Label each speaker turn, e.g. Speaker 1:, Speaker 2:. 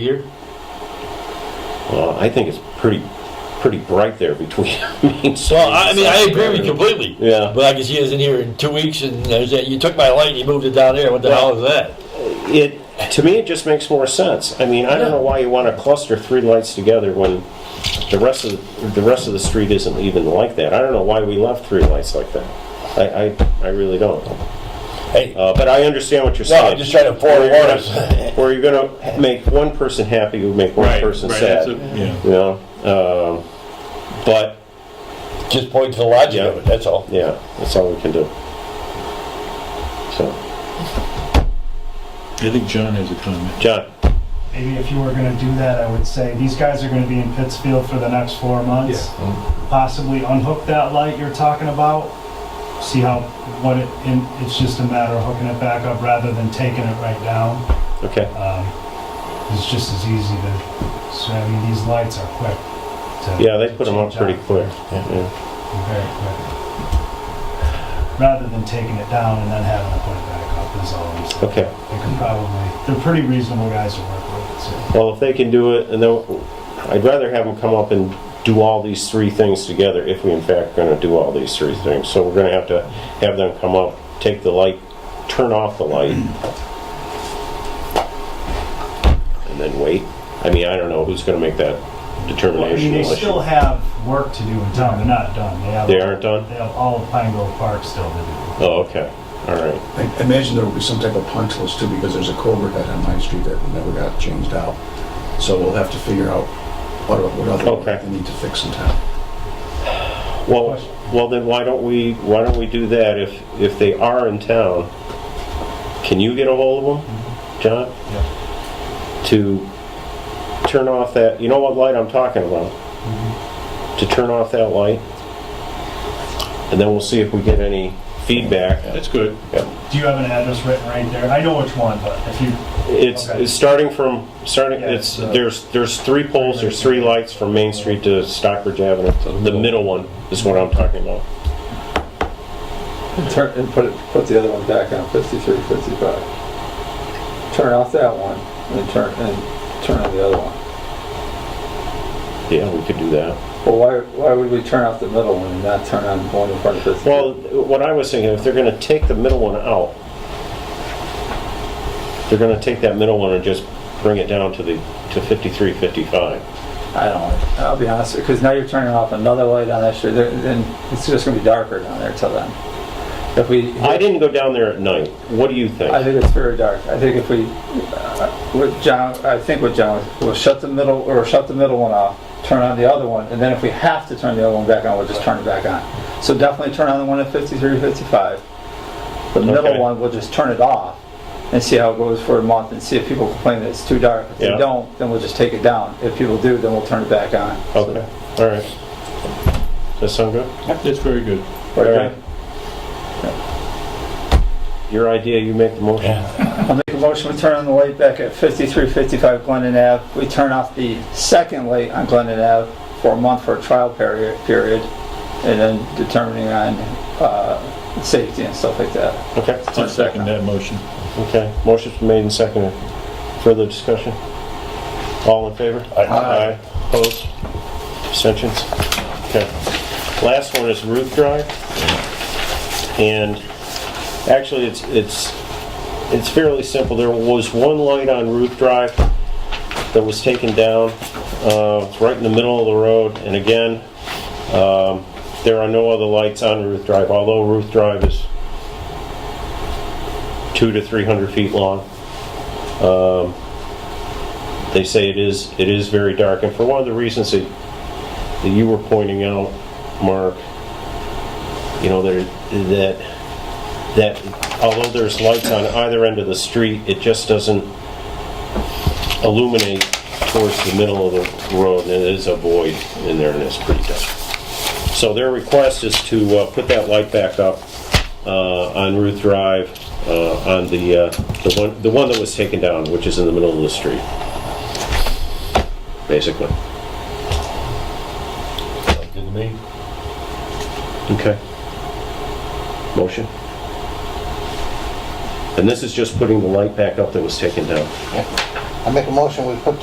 Speaker 1: Here?
Speaker 2: Well, Uh, I think it's pretty, pretty bright there between.
Speaker 1: Well, I I mean, I agree with you completely.
Speaker 2: Yeah.
Speaker 1: But I can see it's in here in two weeks and there's that, you took my light and you moved it down there. What the hell is that?
Speaker 2: It, to me, it just makes more sense. I mean, I don't know why you want to cluster three lights together when the rest of, the rest of the street isn't even like that. I don't know why we left three lights like that. I, I, I really don't.
Speaker 1: Hey,
Speaker 2: Uh, but I understand what you're
Speaker 1: no,
Speaker 2: saying.
Speaker 1: I'm just trying to
Speaker 2: Where
Speaker 1: forewarn
Speaker 2: you're
Speaker 1: us.
Speaker 2: gonna- where you're gonna make one person happy, you make one
Speaker 3: Right,
Speaker 2: person
Speaker 3: right, that's
Speaker 2: sad.
Speaker 3: a- yeah.
Speaker 2: You know, um, but,
Speaker 1: Just point to the logic of it, that's all.
Speaker 2: yeah, that's all we can do. So,
Speaker 3: I think John has a comment.
Speaker 2: John?
Speaker 4: Maybe if you were gonna do that, I would say, these guys are gonna be in Pittsfield for the next four months.
Speaker 2: Oh.
Speaker 4: Possibly unhook that light you're talking about, see how, what it, and it's just a matter of hooking it back up rather than taking it right down.
Speaker 2: Okay.
Speaker 4: Um, It's just as easy to, so I mean, these lights are quick. to-
Speaker 2: Yeah, they put them up pretty quick. Yeah.
Speaker 4: Very quick. Rather than taking it down and then having to put it back up is all I'm saying.
Speaker 2: Okay.
Speaker 4: They can probably, they're pretty reasonable guys to work with, so.
Speaker 2: Well, if they can do it, and they'll, I'd rather have them come up and do all these three things together if we in fact going to do all these three things. So we're going to have to have them come up, take the light, turn off the light, and then wait. I mean, I don't know who's going to make that
Speaker 4: I mean,
Speaker 2: determination.
Speaker 4: they
Speaker 2: unless you-
Speaker 4: still have work to do in town, they're not done. They have-
Speaker 2: They aren't done?
Speaker 4: They have all of Pine Grove Park still to do.
Speaker 2: Oh, okay. All right.
Speaker 5: I I imagine there will be some type of punch list too, because there's a culvert out on my street that never got changed out. So we'll have to figure out what, what
Speaker 2: Okay.
Speaker 5: other, we need to fix in town.
Speaker 2: Well, well, then why don't we, why don't we do that if, if they are in town? Can you get a hold of them, John? To turn off that, you know what light I'm talking about?
Speaker 4: Mm-hmm.
Speaker 2: To turn off that light? And then we'll see if we get any feedback.
Speaker 3: That's good.
Speaker 4: Do you have an address written right there? I know which one, but if you,
Speaker 2: It's,
Speaker 4: Okay.
Speaker 2: it's starting from, starting,
Speaker 4: Yeah,
Speaker 2: it's,
Speaker 4: so-
Speaker 2: there's, there's three poles, there's three lights from Main Street to Stockbridge Avenue. The middle one is what I'm talking about.
Speaker 6: Turn, and put it, put the other one back on fifty-three, fifty-five. Turn off that one and turn, and turn on the other one.
Speaker 2: Yeah, we could do that.
Speaker 6: Well, why, why would we turn off the middle one and not turn on the one in front of fifty-three?
Speaker 2: Well, what I was thinking, if they're gonna take the middle one out, they're gonna take that middle one and just bring it down to the, to fifty-three, fifty-five.
Speaker 6: I don't, I'll be honest, because now you're turning off another light on that street, there- then it's just gonna be darker down there till then. If we,
Speaker 2: I
Speaker 6: I
Speaker 2: didn't go down there at night. What do you think?
Speaker 6: think it's very dark. I think if we, uh, what John, I think what John, we'll shut the middle, or shut the middle one off, turn on the other one, and then if we have to turn the other one back on, we'll just turn it back on. So definitely turn on the one at fifty-three, fifty-five. The
Speaker 2: Okay.
Speaker 6: middle one, we'll just turn it off and see how it goes for a month and see if people complain that it's too dark. If
Speaker 2: Yeah.
Speaker 6: they don't, then we'll just take it down. If people do, then we'll turn it back on. So-
Speaker 2: Okay, all right. Does that sound good?
Speaker 3: That's very good.
Speaker 2: All right. Your idea, you make the motion.
Speaker 6: I'll make a motion, we turn on the light back at 5355 Glendon Ave. We turn off the second light on Glendon Ave for a month for a trial period, period, and then determining on uh, safety and stuff like that.
Speaker 2: Okay,
Speaker 3: I'll second that motion.
Speaker 2: okay. Motion's been made and seconded. Further discussion? All in favor? Aye. Opposed? Abstentions? Okay. Last one is roof drive. And actually, it's, it's, it's fairly simple. There was one light on roof drive that was taken down. Uh, it's right in the middle of the road. And again, um, there are no other lights on roof drive, although roof drive is two to 300 feet long. Um, They say it is, it is very dark, and for one of the reasons that, that you were pointing out, Mark, you know, that, that, that although there's lights on either end of the street, it just doesn't illuminate towards the middle of the road, and it is a void in there, and it's pretty dark. So their request is to uh, put that light back up uh, on Ruth Drive, uh, on the, uh, the one, the one that was taken down, which is in the middle of the street basically.
Speaker 1: Sounds Good to me.
Speaker 2: Okay. Motion. And this is just putting the light back up that was taken down.
Speaker 7: I make a motion, we put